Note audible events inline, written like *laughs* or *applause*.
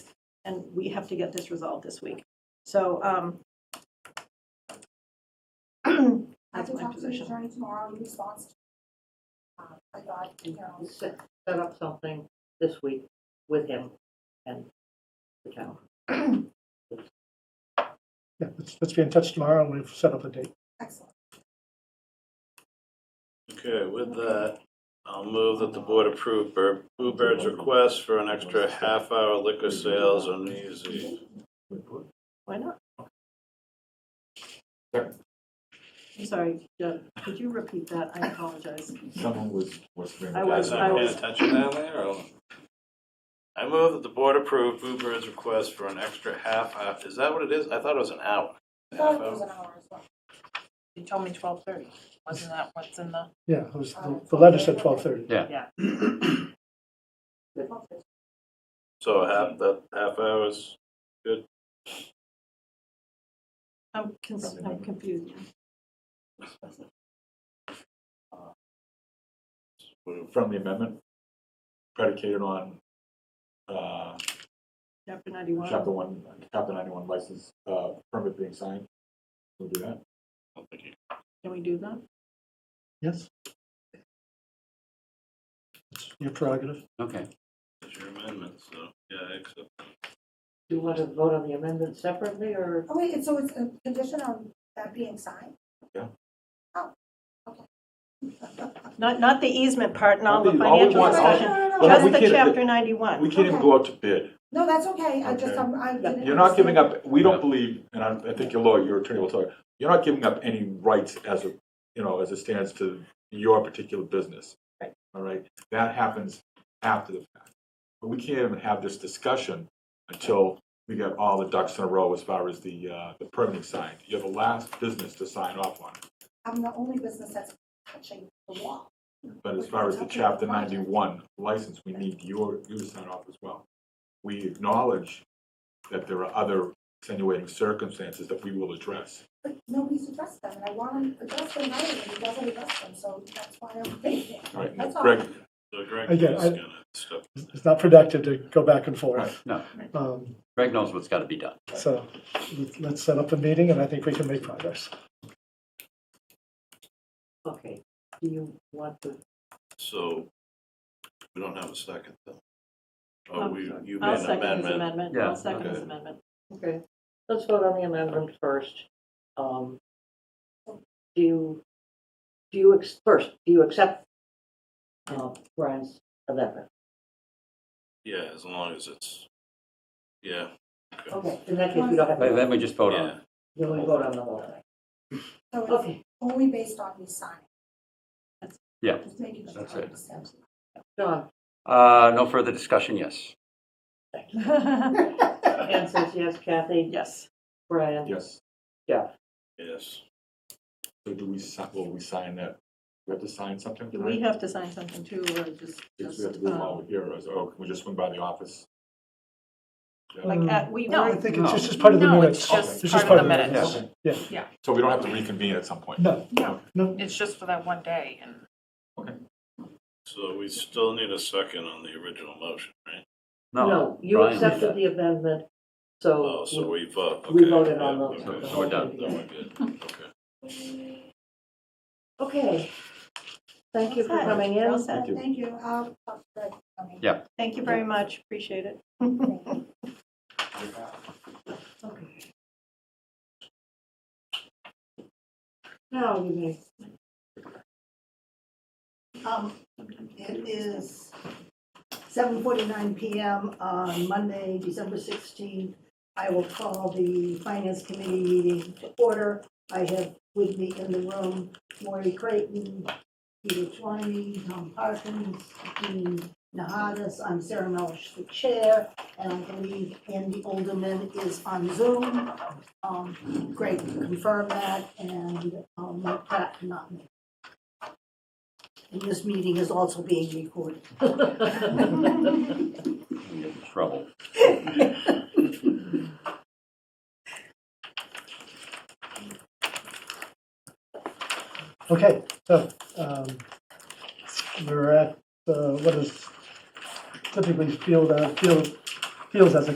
and we have to get this resolved this week. So, um, I *clears throat* that's can my talk to the position. attorney tomorrow in response. to- uh, I thought, you know, set set up something this week with him and the town. Yeah, let's, let's be in touch tomorrow and we've set up a date. excellent. Okay, with that, I'll move that the board approve Bur- Blue Bird's request for an extra half-hour liquor sales on New Year's Eve. Why not? Sure. I'm sorry, Deb, could you repeat that? I apologize. Someone was, was. I was- Guys, not paying attention down there, or? I move that the board approve Blue Bird's request for an extra half hour, is that what it is? I thought it was an hour. I Half thought it was hour. an hour as well. You told me twelve thirty, wasn't that what's in the, Yeah, it was, the- the letter said twelve thirty. Okay. So half, that half hours, I'm cons- I'm confused. From the amendment predicated on, uh, Chapter 91, chapter one, chapter ninety-one license, uh, permit being signed. We'll do that. can we do that? Yes? It's Your prerogative. Okay, that's your amendment, so, yeah, I accept. Do you want to vote on the amendment separately, or Oh, wait, and so it's a condition on that being signed? Not, not the easement part and all the Not the- all we financial want- all- discussion, No, no, no, Well, no, just we the can't- chapter 91. We can't even go out to bid. no, that's okay, I just, Okay. I'm, I didn't. You're not giving understand. up, we don't believe, and I, I think your lawyer, your attorney will tell you, you're not giving up any rights as a, you know, as it stands to your particular business. Right. All right, that happens after the fact. But we can't even have this discussion until we get all the ducks in a row as far as the, uh, the permitting side. You're the last business to sign off on it. I'm the only business that's touching the wall. But as far as the chapter ninety-one license, we need your, you to sign off as well. We acknowledge that there are other extenuating circumstances that we will address. But nobody's addressed them, and I want him addressed them right, and he doesn't address them, so that's why I'm thinking. All right, That's now, all. Greg, So Greg is Again, I- gonna step. It's not productive to go back and forth. no, Um, Greg knows what's gotta be done. So let's- let's set up a meeting and I think we can make progress. okay, do you want to? So, we don't have a second, though. Oh, Um, we, you I'll made an second his amendment. amendment, Yeah. I'll second his Okay. amendment. Okay, let's vote on the amendment first. Um, Do you, do you, ex- first, do you accept uh, Brian's amendment? Yeah, as long as it's, yeah, Okay, in that case, we don't have But to, Then we just vote on yeah. it. then we vote on the whole thing. So it's Okay, only based on me signing. That's- Yeah, Just making sure. that's I it. understand. John, Uh, no further discussion, yes. Anne says yes, Kathy, Yes, Brian, yes, Jeff. Yes, so do we, si- will we sign that? We have to sign something do we tonight? have to sign something too, or just, Because we have to just, do it while um, we're here, or is- or can we just swing by the office? like, at- we No, I were, think it's No. just, just part of the No, minutes. it's just It's part of the minutes. Okay. Yeah. Yeah. So we don't have to reconvene at some point? No, No. no, it's just for that one day and. so we still need a second on the original motion, right? No, you Brian. accepted the amendment, Oh, so so we vote. we okay, voted yeah, on the. okay. the so whole we're done. thing Then we're together. good, okay. Okay. Thank you for Okay. coming in. Well said. Thank you. Thank you, I'll talk to Greg. Okay. Yeah. thank you very much, appreciate it. *laughs* Thank you. Okay. Now you may Um, It is 7:49 PM on Monday, December 16th. I will call the Finance Committee meeting to order. I have with me in the room Maury Creighton, Peter Twiney, Tom Parkins, Dean Nahadas. I'm Sarah Melish, the chair, and I believe Andy Olderman is on Zoom. Um, Great, confirm that, and um, Mike Pratt cannot make it. And this meeting is also being recorded. We get in trouble. okay, so, um, we're at, uh, what is typically field, uh, field, fields as a